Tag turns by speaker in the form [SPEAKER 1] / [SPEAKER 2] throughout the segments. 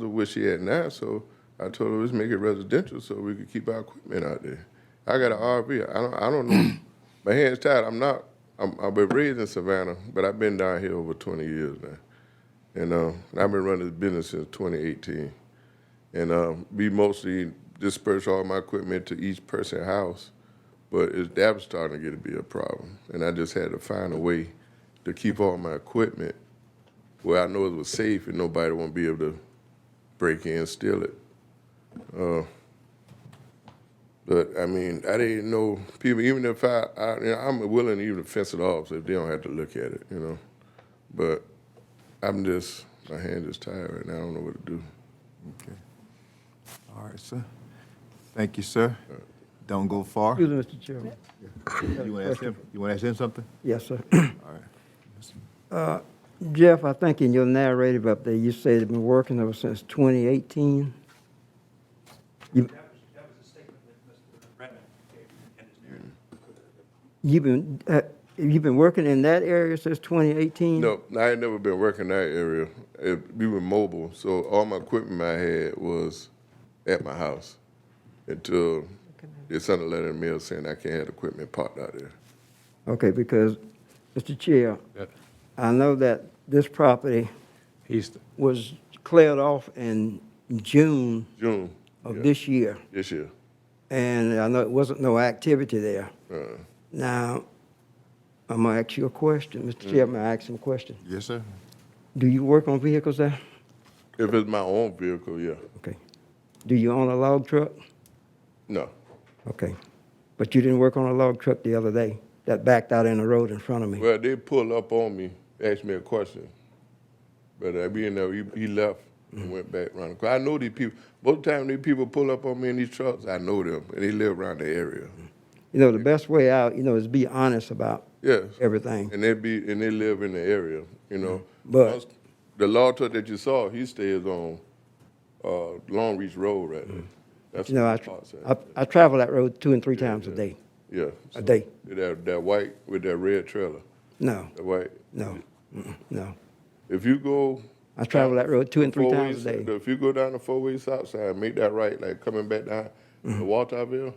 [SPEAKER 1] the what she had now, so I told her, let's make it residential so we could keep our equipment out there. I got an RV, I don't, I don't know, my hands tied, I'm not, I'm, I've been raised in Savannah, but I've been down here over twenty years now. And, um, and I've been running this business since twenty eighteen. And, um, we mostly disperse all my equipment to each person's house, but it's, that was starting to get to be a problem. And I just had to find a way to keep all my equipment where I know it was safe and nobody won't be able to break in, steal it. Uh, But I mean, I didn't know people, even if I, I, you know, I'm willing to even fence it off if they don't have to look at it, you know? But I'm just, my hand is tired right now, I don't know what to do.
[SPEAKER 2] Okay. All right, sir. Thank you, sir. Don't go far. You
[SPEAKER 3] Excuse me, Mr. Chairman.
[SPEAKER 2] want to ask him, you want to ask him something?
[SPEAKER 3] Yes, sir. Uh,
[SPEAKER 2] All right.
[SPEAKER 3] Jeff, I think in your narrative up there, you said you've been working ever since 2018. You-
[SPEAKER 4] That was, that was a statement that Mr. Redmond gave in his narrative.
[SPEAKER 3] You've been, uh, you've been working in that area since 2018?
[SPEAKER 1] No, I had never been working that area. It, we were mobile, so all my equipment I had was at my house until they sent a letter in the mail saying I can't have equipment parked out there.
[SPEAKER 3] Okay, because, Mr. Chair, I know that this property
[SPEAKER 5] He's,
[SPEAKER 3] was cleared off in June
[SPEAKER 1] June. yeah,
[SPEAKER 3] of this year,
[SPEAKER 1] This year.
[SPEAKER 3] and I know it wasn't no activity there.
[SPEAKER 1] Uh,
[SPEAKER 3] Now, I'm gonna ask you a question, Mr. Chairman, I ask him a question.
[SPEAKER 2] Yes, sir.
[SPEAKER 3] Do you work on vehicles there?
[SPEAKER 1] If it's my own vehicle, yeah.
[SPEAKER 3] Okay. Do you own a log truck?
[SPEAKER 1] No.
[SPEAKER 3] Okay. But you didn't work on a log truck the other day that backed out in the road in front of me?
[SPEAKER 1] Well, they pull up on me, ask me a question. But I be in there, he, he left and went back around. 'Cause I know these people. Most of the time, these people pull up on me in these trucks, I know them, and they live around the area.
[SPEAKER 3] You know, the best way out, you know, is be honest about
[SPEAKER 1] Yes.
[SPEAKER 3] everything.
[SPEAKER 1] And they be and they live in the area, you know.
[SPEAKER 3] But-
[SPEAKER 1] Once- the law truck that you saw, he stays on uh, Long Reach Road, right? there. That's
[SPEAKER 3] Mm. You know,
[SPEAKER 1] what
[SPEAKER 3] I,
[SPEAKER 1] the law said.
[SPEAKER 3] I, I travel that road two and three times a day.
[SPEAKER 1] yeah.
[SPEAKER 3] A day?
[SPEAKER 1] That that white with that red trailer,
[SPEAKER 3] No,
[SPEAKER 1] that white.
[SPEAKER 3] no, mm-mm, no.
[SPEAKER 1] If you go
[SPEAKER 3] I travel that road two and three
[SPEAKER 1] four-way
[SPEAKER 3] times a
[SPEAKER 1] south-
[SPEAKER 3] day.
[SPEAKER 1] If you go down the four way south side, make that right, like coming back down to
[SPEAKER 3] Mm-hmm.
[SPEAKER 1] Walterville.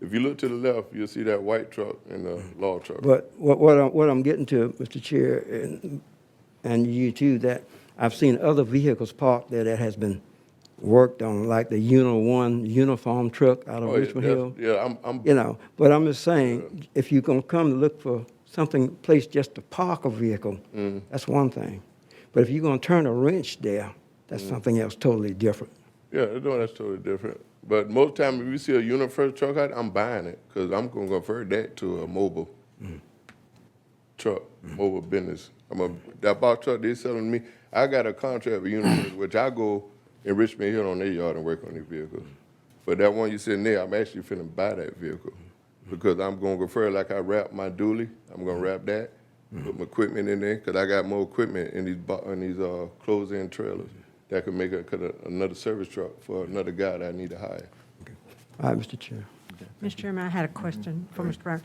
[SPEAKER 1] If you look to the left, you'll see that white truck and the
[SPEAKER 3] Mm-hmm.
[SPEAKER 1] law truck.
[SPEAKER 3] But what, what I'm, what I'm getting to, Mr. Chair, and, and you too, that I've seen other vehicles parked there that has been worked on, like the Uno One uniform truck out of
[SPEAKER 1] Oh, yeah,
[SPEAKER 3] Richmond
[SPEAKER 1] that's-
[SPEAKER 3] Hill.
[SPEAKER 1] Yeah, I'm, I'm
[SPEAKER 3] You know, but I'm just saying, if you're gonna come to look for something, place just to park a vehicle,
[SPEAKER 1] Mm.
[SPEAKER 3] that's one thing. But if you're gonna turn a wrench there, that's
[SPEAKER 1] Mm.
[SPEAKER 3] something else totally different.
[SPEAKER 1] Yeah, no, that's totally different. But most time, if you see a UniFirst truck out, I'm buying it because I'm gonna convert that to a mobile truck, mobile business. I'm a that box truck they selling me. I got a contract with UniFirst, which I go in Richmond Hill on their yard and work on their vehicles. But that one you sitting there, I'm actually finna buy that vehicle because I'm gonna convert like I wrap my dually. I'm gonna wrap that, put my equipment in there because I got more equipment in these bo- in these uh, closed-in trailers that could make a, could a, another service truck for another guy that I need to hire.
[SPEAKER 3] All right, Mr. Chair.
[SPEAKER 6] Mr. Chairman, I had
[SPEAKER 1] Mm-hmm.
[SPEAKER 6] a question for Mr. Brown.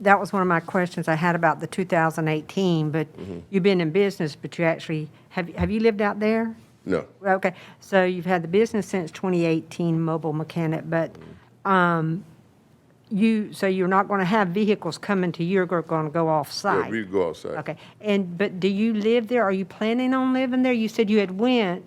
[SPEAKER 6] That was one of my questions I had about the 2018, but
[SPEAKER 1] Mm-hmm.
[SPEAKER 6] you've been in business, but you actually, have, have you lived out there?
[SPEAKER 1] No,
[SPEAKER 6] Well, Okay, so you've had the business since 2018, mobile mechanic, but
[SPEAKER 1] Mm-hmm.
[SPEAKER 6] um, you, so you're not going to have vehicles coming to you, you're going to go
[SPEAKER 1] yeah,
[SPEAKER 6] off-site?
[SPEAKER 1] we go outside.
[SPEAKER 6] Okay, and, but do you live there? Are you planning on living there? You said you had went,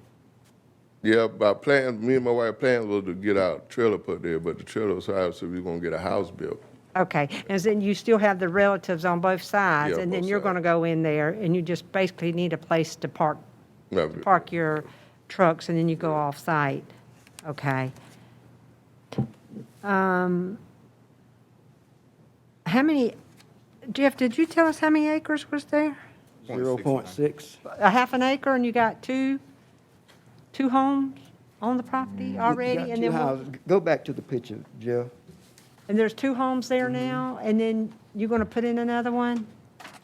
[SPEAKER 1] Yeah, my plans, me and my wife plans was to get our trailer put there, but the trailer was high, so we are gonna get a house built.
[SPEAKER 6] Okay, and then you still have the relatives on both sides,
[SPEAKER 1] Yeah,
[SPEAKER 6] and then
[SPEAKER 1] both
[SPEAKER 6] you're going to
[SPEAKER 1] sides.
[SPEAKER 6] go in there, and you just basically need a place to park,
[SPEAKER 1] No,
[SPEAKER 6] to park your trucks, and then you go off-site. Okay. Um, How many, Jeff, did you tell us how many acres was there?
[SPEAKER 3] Zero point six.
[SPEAKER 6] A half an acre, and you got two, two homes on the
[SPEAKER 1] Mm,
[SPEAKER 6] property already? and then we'll-
[SPEAKER 3] Go back to the picture, Jeff.
[SPEAKER 6] And there's two homes
[SPEAKER 1] Mm-hmm.
[SPEAKER 6] there now, and then you're going to put in another one?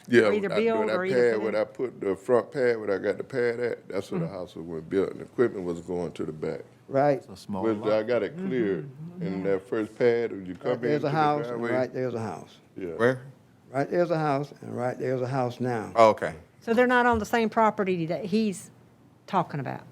[SPEAKER 1] Yeah,
[SPEAKER 6] Or either
[SPEAKER 1] I-
[SPEAKER 6] build
[SPEAKER 1] when I
[SPEAKER 6] or either
[SPEAKER 1] pad,
[SPEAKER 6] put
[SPEAKER 1] when
[SPEAKER 6] in. Mm.
[SPEAKER 1] I put the front pad, where I got the pad at, that's where the house was going built, and the equipment was going to the back.
[SPEAKER 3] Right,
[SPEAKER 2] It's a small
[SPEAKER 1] Which
[SPEAKER 2] lot.
[SPEAKER 1] I got it cleared,
[SPEAKER 6] Mm-hmm.
[SPEAKER 1] and that first pad, when you come in.
[SPEAKER 3] there's
[SPEAKER 1] to
[SPEAKER 3] a
[SPEAKER 1] the
[SPEAKER 3] house, and
[SPEAKER 1] driveway,
[SPEAKER 3] right there's a house.
[SPEAKER 1] Yeah,
[SPEAKER 7] Where?
[SPEAKER 3] Right there's a house, and right there's a house now.
[SPEAKER 7] Oh, okay.
[SPEAKER 6] So they're not on the same property that he's talking about?